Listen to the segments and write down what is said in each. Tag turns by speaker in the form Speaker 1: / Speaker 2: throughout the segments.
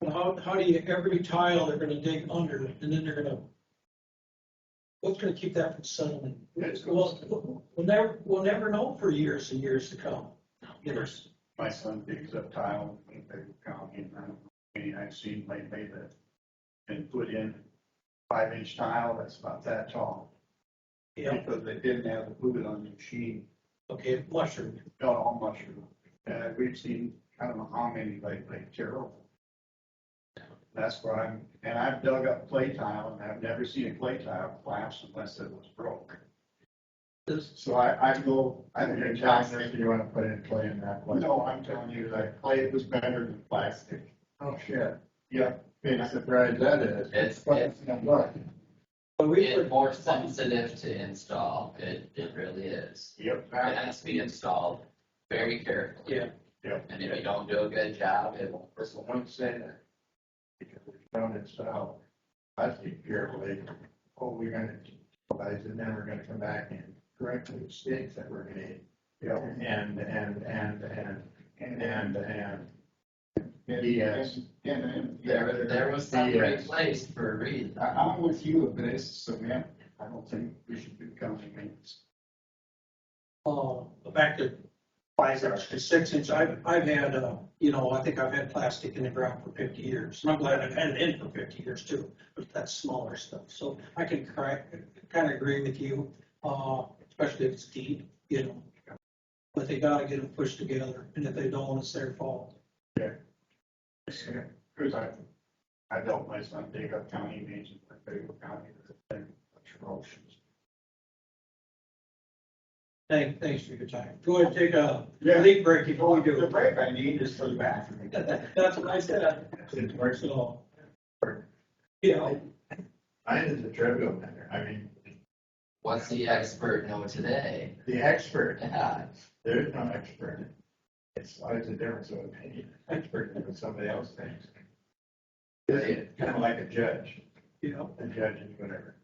Speaker 1: But how, how do you, every tile they're gonna dig under and then they're gonna, what's gonna keep that from settling?
Speaker 2: It's
Speaker 1: Well, we'll never, we'll never know for years and years to come. Years.
Speaker 2: My son digs up tile, in Baker County, and I don't know, I mean, I've seen lately that been put in five inch tile that's about that tall.
Speaker 1: Yeah,
Speaker 2: Because they didn't have the fluid on the machine,
Speaker 1: okay, mushroom.
Speaker 2: got all mushroom. And we've seen, I don't know how many lately, terrible. That's where I'm, and I've dug up clay tile, and I've never seen a clay tile collapse unless it was broke.
Speaker 1: This-
Speaker 2: So I, I go, I think
Speaker 3: You're
Speaker 2: it's
Speaker 3: telling us you wanna put in clay in that place?
Speaker 2: No, I'm telling you, like, clay was better than plastic.
Speaker 3: Oh, shit.
Speaker 2: Yeah,
Speaker 3: Being surprised that is.
Speaker 4: It's-
Speaker 3: But it's gonna work.
Speaker 1: But we
Speaker 4: It's
Speaker 1: were,
Speaker 4: more sensitive to install, it, it really is.
Speaker 2: yep,
Speaker 4: It
Speaker 2: that,
Speaker 4: has to be installed very carefully.
Speaker 1: Yeah.
Speaker 2: yep.
Speaker 4: And if you don't do a good job, it won't.
Speaker 2: That's the one saying that. Because it's found itself, I think carefully, oh, we're gonna, realize and then we're gonna come back and correct the mistakes that were made.
Speaker 3: Yep.
Speaker 2: And, and, and, and,
Speaker 3: And,
Speaker 2: and, and.
Speaker 3: and-
Speaker 2: Yes.
Speaker 3: And, and.
Speaker 4: There, there was some
Speaker 2: Yeah. uh,
Speaker 4: replaced for a reason.
Speaker 3: I, I'm with you, but it's cement.
Speaker 2: I don't think we should do county maintenance.
Speaker 1: uh, back to five inch to six inch, I've, I've had, uh, you know, I think I've had plastic in the ground for fifty years. And I'm glad I've had it in for fifty years too, but that's smaller stuff. So I can cry, kinda agree with you, uh, especially if it's deep, you know. But they gotta get them pushed together and if they don't, it's their fault.
Speaker 2: Cause I, I dealt my son dig up county agent, like Baker County, that's atrocious.
Speaker 1: Thank, thanks for your time. Go ahead, and take a
Speaker 3: Yeah.
Speaker 1: leak break before we do
Speaker 3: The
Speaker 1: it.
Speaker 3: break I need is for the bathroom.
Speaker 1: That's what I said.
Speaker 2: It works at all.
Speaker 1: Yeah,
Speaker 2: Mine is a trivial matter. I mean,
Speaker 4: What's the expert know today?
Speaker 2: the expert,
Speaker 4: Yeah,
Speaker 2: there's no expert. It's always a difference of opinion. Expert is what somebody else thinks. It's kind of like a judge.
Speaker 1: you know,
Speaker 2: A judge is whatever.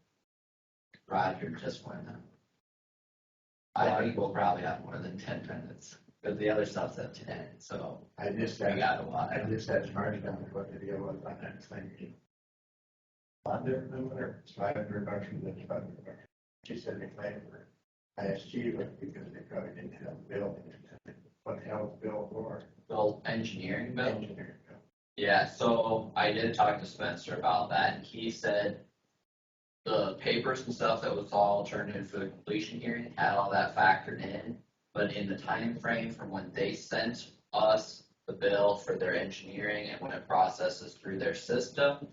Speaker 4: Roger just went on. I think we'll probably have more than ten minutes, because the other stuff's at ten, so
Speaker 2: I just
Speaker 4: we
Speaker 2: had,
Speaker 4: got a lot.
Speaker 2: I just had charged on what the deal was on that thing. Under, no, whatever, it's five hundred bucks from the five hundred bucks. She said they claimed for ISG, but because they probably didn't have a bill. What the hell is bill for?
Speaker 4: Bill, engineering bill?
Speaker 2: Engineer bill.
Speaker 4: Yeah, so I did talk to Spencer about that, and he said the papers and stuff that was all turned in for the completion hearing had all that factored in, but in the time frame from when they sent us the bill for their engineering and when it processes through their system,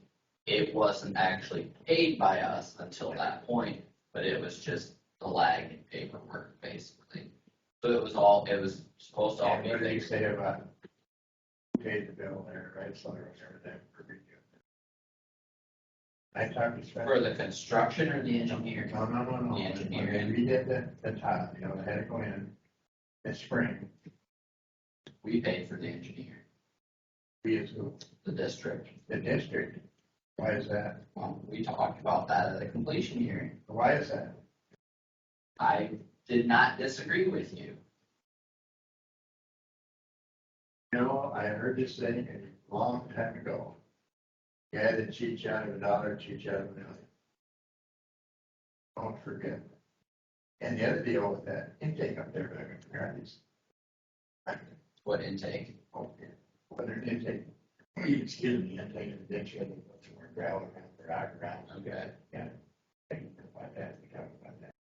Speaker 4: it wasn't actually paid by us until that point, but it was just the lag in paperwork, basically. So it was all, it was supposed to all
Speaker 2: And
Speaker 4: be
Speaker 2: what did he
Speaker 4: fixed.
Speaker 2: say about who paid the bill there, right, so I remember that pretty good. I talked to
Speaker 4: For
Speaker 2: Spencer.
Speaker 4: the construction or the engineering?
Speaker 2: No, no, no, no,
Speaker 4: The
Speaker 2: when
Speaker 4: engineer.
Speaker 2: they redid the, the tile, you know, they had to go in this spring,
Speaker 4: We paid for the engineer,
Speaker 2: we as who,
Speaker 4: the district.
Speaker 2: the district. Why is that?
Speaker 4: Um, we talked about that at the completion hearing.
Speaker 2: Why is that?
Speaker 4: I did not disagree with you.
Speaker 2: You know, I heard this thing a long time ago. Guy that cheats out of a dollar, cheats out of a million. Don't forget. And the other deal with that intake up there, I haven't forgotten this.
Speaker 4: What intake?
Speaker 2: Okay, whether an intake, excuse me, intake of the ditch, whether it's more gravel around, the rock around,
Speaker 4: Okay,
Speaker 2: things like that, we talked about that.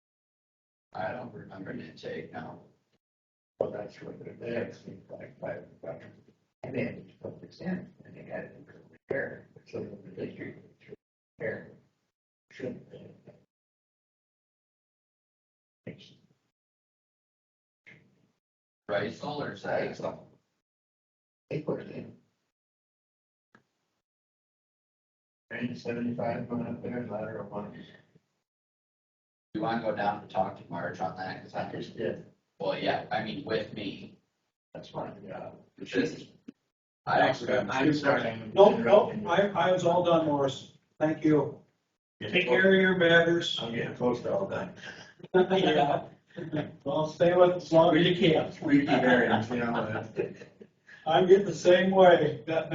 Speaker 4: I don't remember an intake now.
Speaker 2: Well, that's what they're there, it seems like, five bucks. And they had to put this in, and they had to repair, it, so the district should repair. it. Shouldn't they? It's-
Speaker 4: Right, solar
Speaker 2: Right,
Speaker 4: side.
Speaker 2: so. They put it in. Range seventy-five going up there, lateral one.
Speaker 4: You wanna go down and talk to Marge on that? Cause
Speaker 2: I
Speaker 4: I
Speaker 2: just did,
Speaker 4: well, yeah, I mean, with me,
Speaker 2: that's my job.
Speaker 4: just, I don't remember.
Speaker 2: I'm sorry.
Speaker 1: no, no, I, I was all done, Morris. Thank you. Take care of your matters.
Speaker 2: I'm getting close to all done.
Speaker 1: Yeah. Well, stay with us as long as you can.
Speaker 2: Squeaky bearings, you know. that's-
Speaker 1: I'm getting the same way. That-